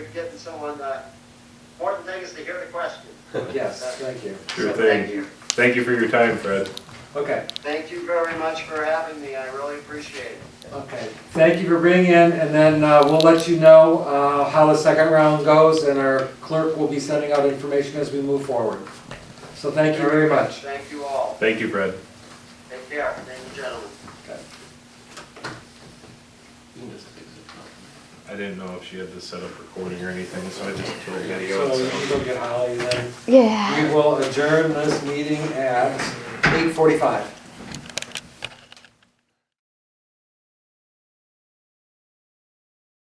getting someone, uh, important thing is to hear the question. Yes, thank you. So Sure thank thing. you. Thank you for your time, Fred. Okay, Thank you very much for having me, I really appreciate it. okay. Thank you for bringing in, and then uh, we'll let you know uh, how the second round goes, and our clerk will be sending out information as we move forward. So thank you very much. Thank you all. Thank you, Fred. Take care, thank you, gentlemen. I didn't know if she had this set up recording or anything, so I just told video. So you can go get Holly then. Yeah. We will adjourn this meeting at 8:45.